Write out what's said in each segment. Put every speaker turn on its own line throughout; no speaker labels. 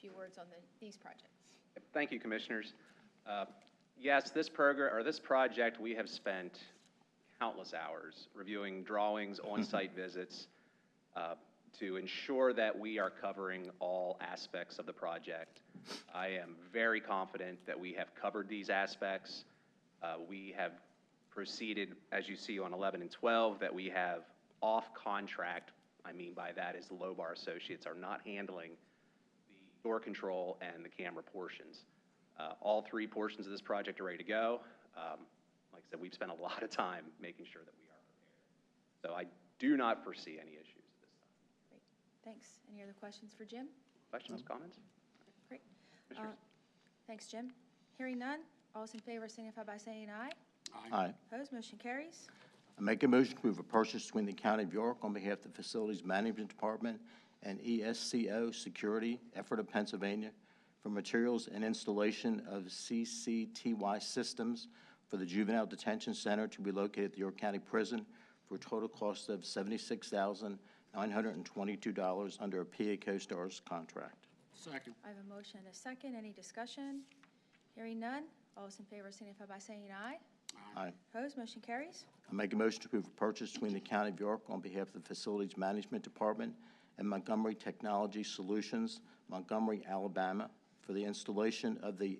few words on the, these projects.
Thank you, Commissioners. Uh, Yes, this program, or this project, we have spent countless hours reviewing drawings, on-site visits, uh, to ensure that we are covering all aspects of the project. I am very confident that we have covered these aspects. Uh, We have proceeded, as you see on 11 and 12, that we have off-contract, I mean by that is Lobar Associates are not handling the door control and the camera portions. Uh, All three portions of this project are ready to go. Um, Like I said, we've spent a lot of time making sure that we are prepared. So I do not foresee any issues at this time.
Great, thanks. Any other questions for Jim?
Questions, comments?
Great. Uh,
Commissioners?
Thanks, Jim. Hearing none, all those in favor signify by saying aye.
Aye.
Opposed, motion carries.
I make a motion to approve a purchase between the County of York on behalf of the Facilities Management Department and E ESCO Security, Effort of Pennsylvania, for materials and installation of CCTY systems for the Juvenile Detention Center to be located at the York County Prison for a total cost of seventy-six thousand, nine hundred and twenty-two dollars under a PA CoStarz contract.
Second.
I have a motion and a second. Any discussion? Hearing none, all those in favor signify by saying aye.
Aye.
Opposed, motion carries.
I make a motion to approve a purchase between the County of York on behalf of the Facilities Management Department and Montgomery Technology Solutions, Montgomery, Alabama, for the installation of the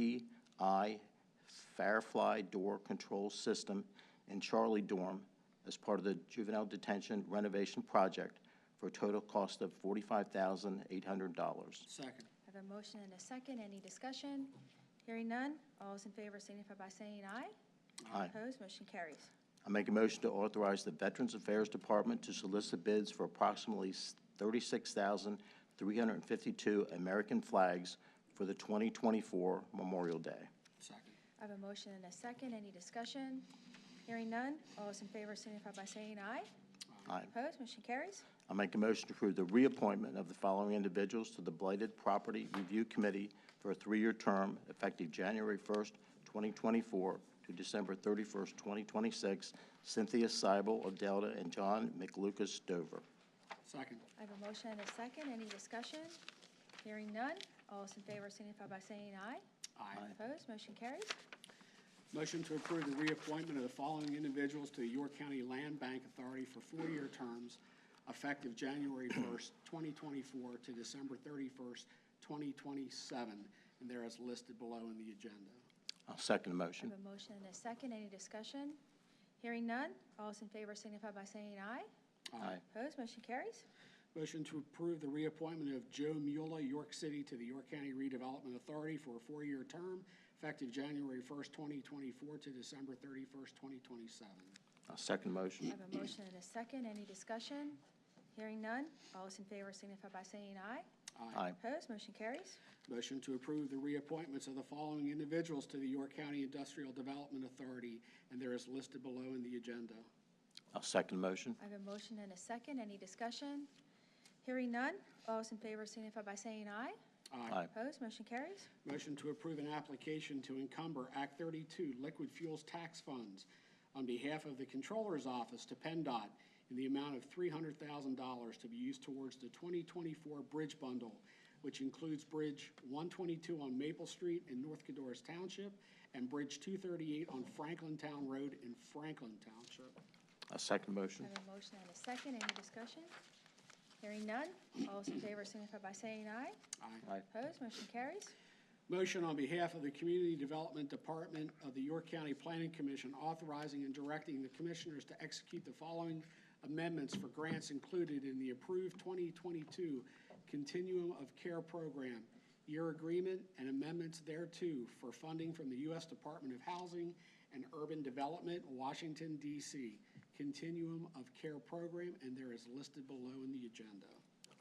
MTI Firefly Door Control System in Charlie Dorm as part of the juvenile detention renovation project for a total cost of forty-five thousand eight hundred dollars.
Second.
I have a motion and a second. Any discussion? Hearing none, all those in favor signify by saying aye.
Aye.
Opposed, motion carries.
I make a motion to authorize the Veterans Affairs Department to solicit bids for approximately thirty-six thousand, three hundred and fifty-two American flags for the twenty twenty-four Memorial Day.
Second.
I have a motion and a second. Any discussion? Hearing none. All those in favor signify by saying aye.
Aye.
Opposed, motion carries.
I make a motion to approve the reappointment of the following individuals to the Blighted Property Review Committee for a three-year term effective January first, twenty twenty-four to December thirty-first, twenty twenty-six, Cynthia Seibel of Delta and John McLucas Dover.
Second.
I have a motion and a second. Any discussion? Hearing none. All those in favor signify by saying aye.
Aye.
Opposed, motion carries.
Motion to approve the reappointment of the following individuals to the York County Land Bank Authority for four-year terms effective January first, twenty twenty-four to December thirty-first, twenty twenty-seven, and there is listed below in the agenda.
I'll second the
I
motion.
have a motion and a second. Any discussion? Hearing none. All those in favor signify by saying aye.
Aye.
Opposed, motion carries.
Motion to approve the reappointment of Joe Mueller, York City, to the York County Redevelopment Authority for a four-year term effective January first, twenty twenty-four to December thirty-first, twenty twenty-seven.
I'll second the motion.
I have a motion and a second. Any discussion? Hearing none. All those in favor signify by saying aye.
Aye.
Opposed, motion carries.
Motion to approve the reappointments of the following individuals to the York County Industrial Development Authority, and there is listed below in the agenda.
I'll second the motion.
I have a motion and a second. Any discussion? Hearing none. All those in favor signify by saying aye.
Aye.
Opposed, motion carries.
Motion to approve an application to encumber Act 32 Liquid Fuels Tax Funds on behalf of the Controller's Office to PennDOT in the amount of $300,000 to be used towards the 2024 Bridge Bundle, which includes Bridge 122 on Maple Street in North Codorus Township and Bridge 238 on Franklin Town Road in Franklin Township.
I'll second the motion.
I have a motion and a second. Any discussion? Hearing none. All those in favor signify by saying aye.
Aye.
Aye.
Opposed, motion carries.
Motion on behalf of the Community Development Department of the York County Planning Commission authorizing and directing the commissioners to execute the following amendments for grants included in the approved 2022 Continuum of Care Program, year agreement and amendments thereto for funding from the U.S. Department of Housing and Urban Development, Washington, D.C. Continuum of Care Program, and there is listed below in the agenda.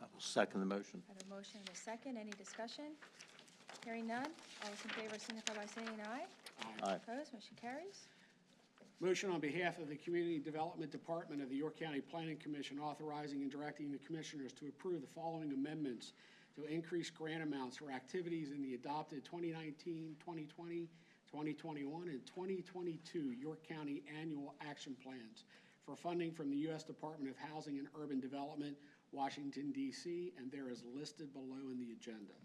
I will second the motion.
I have a motion and a second. Any discussion? Hearing none. All those in favor signify by saying aye.
Aye.
Opposed, motion carries.
Motion on behalf of the Community Development Department of the York County Planning Commission authorizing and directing the commissioners to approve the following amendments to increase grant amounts for activities in the adopted 2019, 2020, 2021, and 2022 York County Annual Action Plans for funding from the U.S. Department of Housing and Urban Development, Washington, D.C., and there is listed below in the agenda.